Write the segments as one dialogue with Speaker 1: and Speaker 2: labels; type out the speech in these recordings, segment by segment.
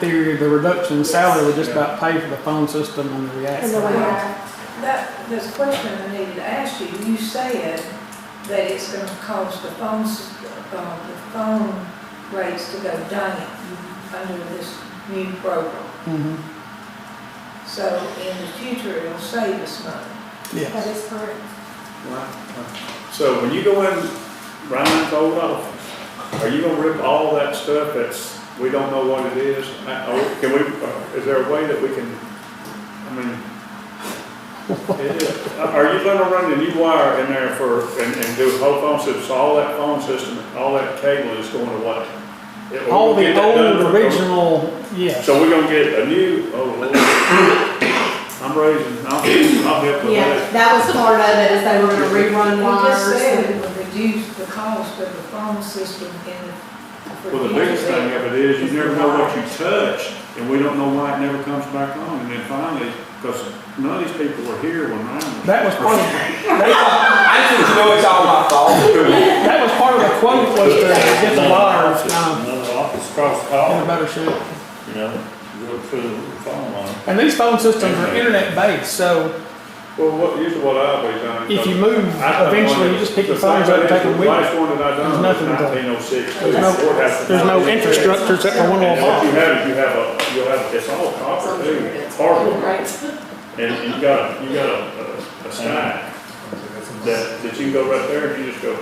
Speaker 1: theory, the reduction in salary would just about pay for the phone system and the
Speaker 2: And the
Speaker 1: reactor.
Speaker 2: way,
Speaker 3: That, this question I needed to ask you, you said that it's gonna cause the phone, s- uh, the phone rates to go down under this new program.
Speaker 1: Mhm.
Speaker 3: So in the future, it'll save us money.
Speaker 2: that
Speaker 1: Yeah.
Speaker 2: is correct.
Speaker 4: So when you go in Ryan's old office, are you gonna rip all that stuff that's, we don't know what it is? I- oh, Can we, is there a way that we can, I mean, it is- are you gonna run the new wire in there for, and, and do whole phone system, so all that phone system, all that cable is going away? It- we're
Speaker 1: All
Speaker 4: gonna get
Speaker 1: the
Speaker 4: that done
Speaker 1: old
Speaker 4: for-
Speaker 1: original, yes.
Speaker 4: So we're gonna get a new, oh, Lord. I'm raising, I'll, I'll help with
Speaker 2: Yeah,
Speaker 4: that.
Speaker 2: that was part of it, is they were gonna rerun
Speaker 3: You just said it
Speaker 2: wires.
Speaker 3: would reduce the cost of the phone system in the.
Speaker 4: Well, the biggest thing of it is, you never know what you touch, and we don't know why it never comes back on, and then finally, because none of these people were here when mine was.
Speaker 1: That was part of,
Speaker 5: I just want you to know it's all my fault.
Speaker 1: that was part of the quote was to get the wires um,
Speaker 6: Another office across the
Speaker 1: in a
Speaker 6: hall,
Speaker 1: better shape.
Speaker 6: you know, go through the phone line.
Speaker 1: And these phone systems are internet based, so
Speaker 4: Well, what, usually what I always done.
Speaker 1: if you move,
Speaker 4: I done
Speaker 1: eventually
Speaker 4: one-
Speaker 1: you just pick your
Speaker 4: the
Speaker 1: phones
Speaker 4: thing
Speaker 1: up and take
Speaker 4: is,
Speaker 1: them
Speaker 4: the
Speaker 1: with you.
Speaker 4: Last one that I done
Speaker 1: There's
Speaker 4: was
Speaker 1: nothing to-
Speaker 4: nineteen oh six.
Speaker 1: no- There's no infrastructure except for one
Speaker 4: And
Speaker 1: little
Speaker 4: what you
Speaker 1: box.
Speaker 4: have, is you have a, you have, it's all copper, too, hardwood, and and you got a, you got a, a- a stack. that, that you can go right there and you just go,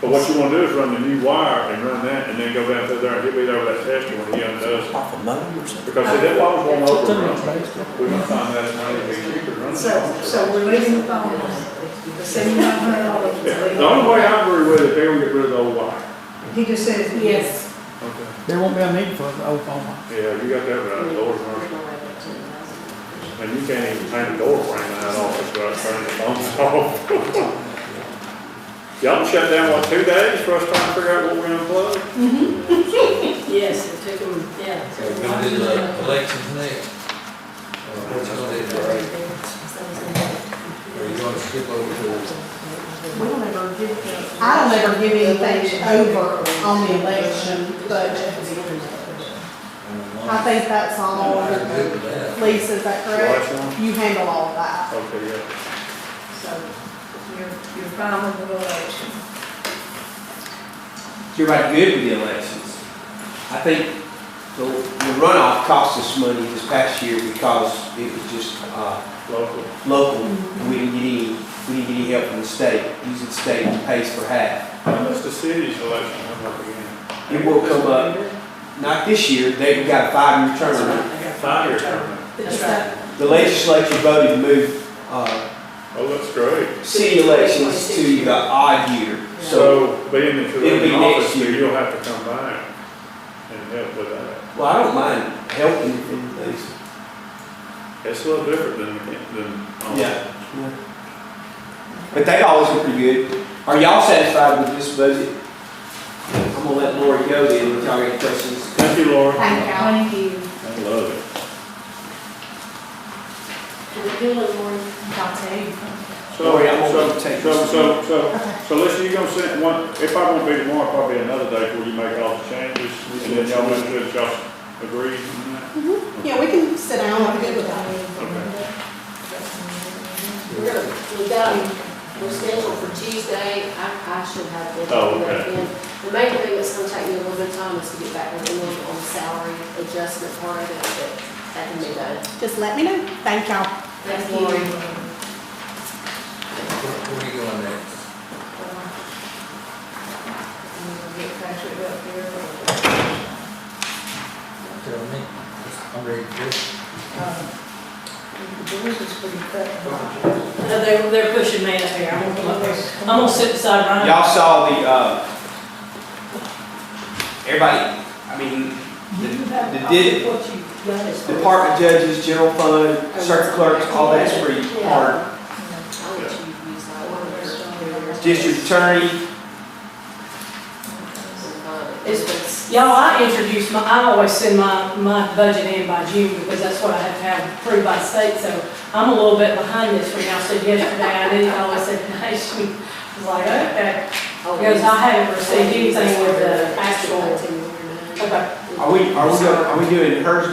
Speaker 4: but what you wanna do is run the new wire and run that, and then go down through there, and he'll be there with that tester when he undoes it.
Speaker 5: Off of money or something.
Speaker 4: Because if that wire won't
Speaker 1: It's internet
Speaker 4: overrun,
Speaker 1: based.
Speaker 4: we're gonna find out it's not gonna be cheaper running.
Speaker 3: So, so we're leaving the phone, the seventy-nine hundred dollars.
Speaker 4: Yeah, The only way I agree with it, they're gonna get rid of the old wire.
Speaker 3: He just said.
Speaker 2: Yes,
Speaker 4: Okay.
Speaker 1: There won't be a need for the old phone line.
Speaker 4: Yeah, you got that right, Lord mercy. And you can't even paint a door frame in that office without turning the phones off. Y'all shut down, what, two days for us trying to figure out what we unplugged?
Speaker 7: Yes, it took them, yeah. it took
Speaker 8: We're
Speaker 7: 'em
Speaker 8: gonna do
Speaker 7: a
Speaker 8: the
Speaker 7: while.
Speaker 8: elections next. What you gonna do, Larry? Are you gonna skip over to
Speaker 2: we don't ever give, I don't ever give anything over on the election budget. I think that's all,
Speaker 8: You're good with that.
Speaker 2: Lisa, is that correct?
Speaker 4: Last
Speaker 2: You handle all of that.
Speaker 4: Okay, yeah.
Speaker 3: So you're, you're fine with the election.
Speaker 5: You're right, good with the elections. I think the the runoff cost us money this past year because it was just, uh,
Speaker 4: local.
Speaker 5: local. and We didn't get any, we didn't get any help from the state. Usually the state pays for half.
Speaker 4: Unless the city's election come up again.
Speaker 5: It will come up, not this year, they've got a five-year term.
Speaker 4: Five-year term.
Speaker 7: That's
Speaker 2: Just
Speaker 7: right.
Speaker 2: that-
Speaker 5: The legislature voted to move, uh,
Speaker 4: Oh, that's great.
Speaker 5: city elections to the odd year. So,
Speaker 4: So being that you're
Speaker 5: It'll be
Speaker 4: in office,
Speaker 5: next
Speaker 4: then
Speaker 5: year.
Speaker 4: you'll have to come back and help with that.
Speaker 5: well, I don't mind helping in these.
Speaker 4: It's a little different than, than. um,
Speaker 5: Yeah. But they always look pretty good. Are y'all satisfied with this budget? I'm gonna let Lori go then, if y'all got questions.
Speaker 4: Thank you, Laura.
Speaker 2: Thank you.
Speaker 3: Thank you.
Speaker 4: I love it.
Speaker 7: Did it feel like more?
Speaker 4: So,
Speaker 5: Lori, I
Speaker 4: so,
Speaker 5: won't take
Speaker 4: so,
Speaker 5: this.
Speaker 4: so, so, so listen, you're gonna send one, if I won't be tomorrow, probably another day where you make all the changes. And then y'all make sure that y'all agree on that.
Speaker 2: Yeah, we can sit down, I'm good with that.
Speaker 7: We're gonna, we got, them- we're scheduled for Tuesday, I, I should have been.
Speaker 4: Oh, okay.
Speaker 7: The main thing that's gonna take me a little bit of time is to get back with them on the salary adjustment part of it, but that can be done.
Speaker 2: Just let me know. Thank y'all.
Speaker 7: Thank you.
Speaker 8: Where where are you going next?
Speaker 3: Get Patrick up here.
Speaker 8: Tell me. I'm ready to go.
Speaker 3: Um, The doors is pretty cut.
Speaker 7: They're, they're pushing me up here, I'm gonna, I'm gonna sit beside Ryan.
Speaker 5: Y'all saw the, uh, everybody, I mean, the, the did,
Speaker 3: What you got is-
Speaker 5: department judges, general fund, circuit clerks, all that's pretty hard.
Speaker 7: I'll let you use that one.
Speaker 5: District attorney,
Speaker 7: It's- Y'all, I introduce my, I always send my, my budget in by June because that's what I have to have approved by state, so I'm a little bit behind this from y'all. So yesterday, I didn't, I always said, nice, she was like, okay. Because I haven't received anything with the actual, okay.
Speaker 5: are we, are we, go- are we doing hers